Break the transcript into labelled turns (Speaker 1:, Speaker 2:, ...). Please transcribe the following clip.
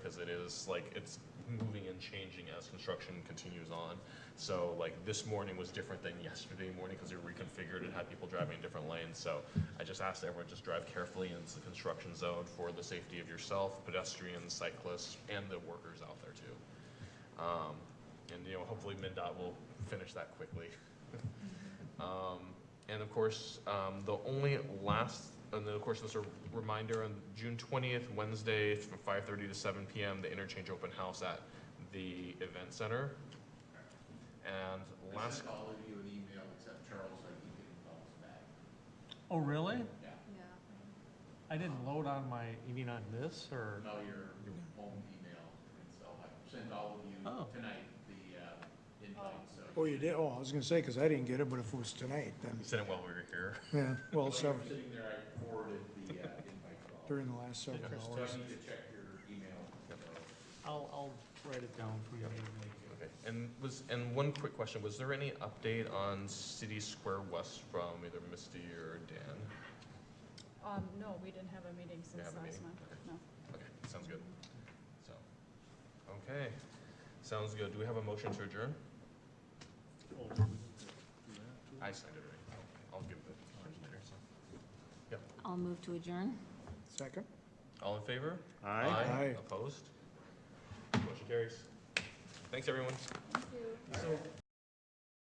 Speaker 1: because it is like it's moving and changing as construction continues on. So like this morning was different than yesterday morning because it reconfigured and had people driving in different lanes. So I just asked everyone just drive carefully in the construction zone for the safety of yourself, pedestrians, cyclists, and the workers out there too. Um, and you know, hopefully MinDOT will finish that quickly. Um, and of course, um, the only last, and then of course, just a reminder on June twentieth, Wednesday, from five thirty to seven PM, the interchange open house at the event center. And
Speaker 2: I
Speaker 1: last,
Speaker 2: sent all of you an email except Charles, so he didn't call us back.
Speaker 3: Oh, really?
Speaker 2: Yeah,
Speaker 3: I didn't load on my, you mean on this or?
Speaker 2: no, your your home email, and so I sent all of you
Speaker 3: Oh.
Speaker 2: tonight the uh, invite, so.
Speaker 4: Oh, you did? Oh, I was gonna say, because I didn't get it, but if it was tonight, then,
Speaker 1: you said it while we were here.
Speaker 4: yeah,
Speaker 2: While
Speaker 4: well,
Speaker 2: you were
Speaker 4: seven,
Speaker 2: Sitting there, I forwarded the uh, invite to all. of you.
Speaker 4: during the last several
Speaker 2: So
Speaker 4: hours.
Speaker 2: I need to check your email. so-
Speaker 3: I'll, I'll write it down for you.
Speaker 1: Okay. And was, and one quick question, was there any update on City Square West from either Misty or Dan?
Speaker 5: Um, no, we didn't have a meeting since
Speaker 1: have a
Speaker 5: last
Speaker 1: meeting?
Speaker 5: month,
Speaker 1: Okay.
Speaker 5: no.
Speaker 1: Okay, sounds good, so, okay, sounds good, do we have a motion to adjourn? I signed it already, I'll- I'll give it to you later, so.
Speaker 6: I'll move to adjourn.
Speaker 4: Second?
Speaker 1: All in favor?
Speaker 4: Aye.
Speaker 1: Opposed? Motion carries. Thanks, everyone.
Speaker 5: Thank you.